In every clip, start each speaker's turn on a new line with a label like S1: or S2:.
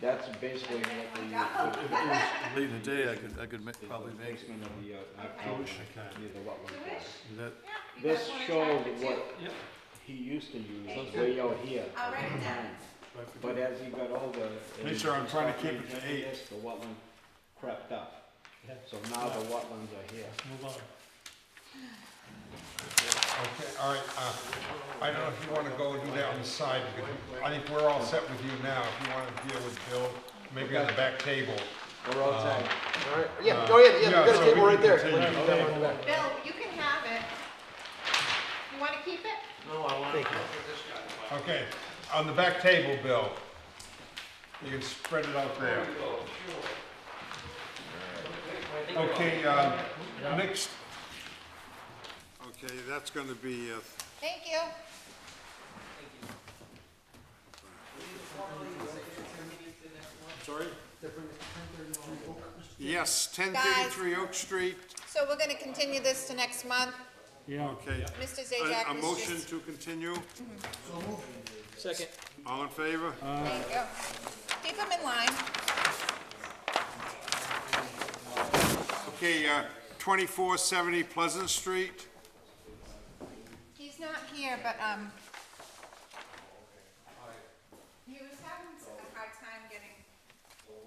S1: That's basically what the.
S2: If it was late in the day, I could, I could ma- probably
S1: the
S2: make it.
S1: basement of the, uh,
S3: Okay.
S1: outhouse
S3: Wish I could.
S1: near the wetland
S3: You
S1: there.
S3: wish?
S2: Is that-
S3: Yeah, you guys
S1: This
S3: wanna try
S1: showed
S3: it too?
S1: what
S3: Yep,
S1: he used to use
S3: Sounds
S1: way out here.
S3: I'll write it down.
S4: I forget.
S1: But as he got older. it-
S4: Make sure I'm trying to keep it to eight.
S1: This, The wetland crept up,
S4: Okay,
S1: so now the wetlands are here.
S4: let's move on.
S5: Okay, all right, uh, I don't know if you wanna go and do that on the side, because I think we're all set with you now, if you wanna deal with Bill, maybe on the back table.
S1: We're outside.
S6: All right, yeah,
S5: Uh,
S6: oh, yeah, yeah,
S5: yeah,
S6: we
S5: so
S6: got a
S5: we
S6: table right
S5: can
S6: there.
S5: continue.
S6: Let's do that one back.
S3: Bill, you can have it. You wanna keep it?
S5: Okay, on the back table, Bill, you can spread it out there. Okay, uh, next,
S4: Okay, that's gonna be, uh,
S3: Thank you.
S4: sorry? Yes, ten thirty-three Oak Street.
S3: So we're gonna continue this to next month.
S4: Okay.
S3: Mr.
S4: A-
S3: Zajac,
S4: A
S3: was
S4: motion
S3: just-
S4: to continue,
S6: Second.
S4: all in favor?
S3: Thank you. Keep them in line.
S4: Okay, uh, twenty-four seventy Pleasant Street.
S3: He's not here, but, um, he was having a hard time getting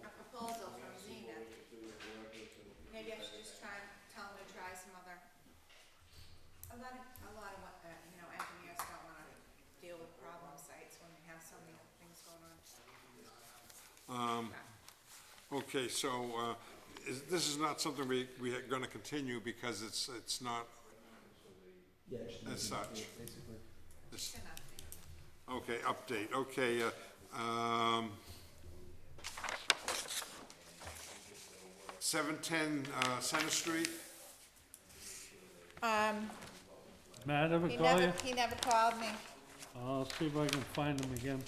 S3: a proposal from Zenith. Maybe I should just try and tell him to try some other, a lot of, a lot of, what, uh, you know, engineers don't wanna deal with problem sites when they have so many things going on.
S4: Okay, so, uh, is, this is not something we, we are gonna continue because it's, it's not as such. This-
S3: Enough.
S4: Okay, update, okay, uh, um, seven-ten, uh, Center Street,
S3: Um,
S7: Matt ever
S3: he
S7: call
S3: never,
S7: you?
S3: he never called me.
S7: I'll see if I can find him again.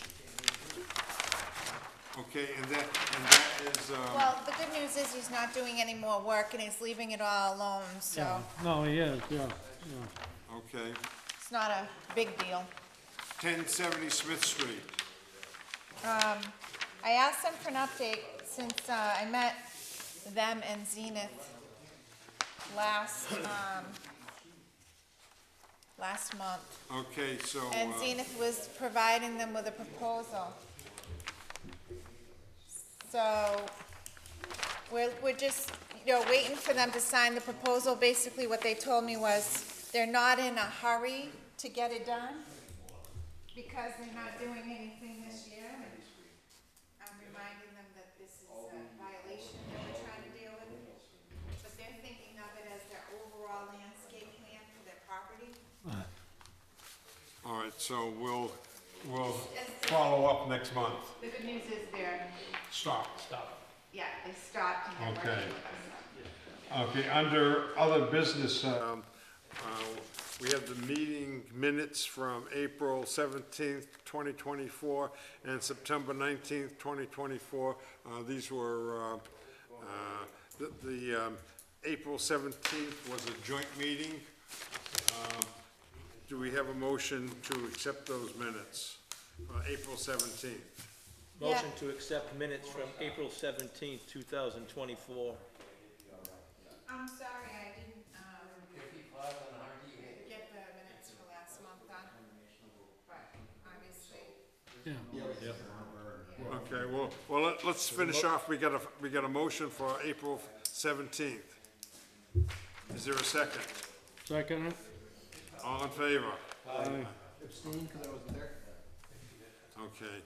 S4: okay, and that, and that is, um,
S3: Well, the good news is he's not doing any more work and he's leaving it all alone, so
S7: No, he is, yeah, yeah.
S4: okay,
S3: it's not a big deal.
S4: ten-seventy Smith Street,
S3: I asked them for an update since uh, I met them and Zenith last, um, last month.
S4: okay, so,
S3: And
S4: uh,
S3: Zenith was providing them with a proposal. So, we're, we're just, you know, waiting for them to sign the proposal. Basically, what they told me was, they're not in a hurry to get it done, because they're not doing anything this year. And I'm reminding them that this is a violation that we're trying to deal with, but they're thinking of it as their overall landscape plan for their property.
S4: all right, so we'll,
S5: we'll follow up next month.
S3: The good news is they're
S5: Stop.
S3: Yeah, they stopped and they're
S5: Okay.
S3: working with us.
S5: Okay, under other business, uh,
S4: uh, we have the meeting minutes from April seventeenth, twenty twenty-four, and September nineteenth, twenty twenty-four. Uh, these were, uh, uh, the, the, um, April seventeenth was a joint meeting. Um, Do we have a motion to accept those minutes, uh, April seventeenth?
S6: Motion to accept minutes from April seventeenth, two thousand twenty-four.
S3: I'm sorry, I didn't, um, get the minutes for last month done, but obviously,
S4: Okay, well, well, let- let's finish off, we got a, we got a motion for April seventeenth. Is there a second?
S7: Second it?
S4: All in favor?
S7: Aye.
S4: Okay.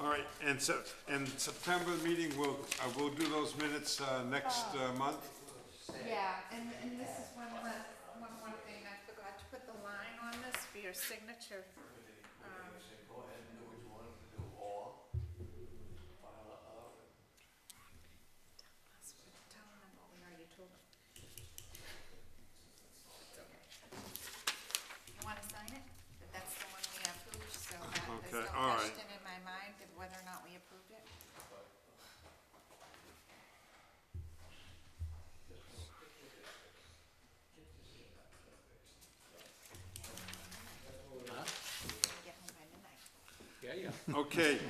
S4: All right, and so, and September meeting, we'll, uh, we'll do those minutes, uh, next, uh, month?
S3: yeah, and, and this is one, last- one more thing, I forgot to put the line on this for your signature. Um, Tell them what we already told them. It's okay. You wanna sign it? But that's the one we approved, so that
S4: Okay,
S3: there's no
S4: all right.
S3: question in my mind of whether or not we approved it. Get home by midnight.
S6: Yeah, yeah.
S4: Okay,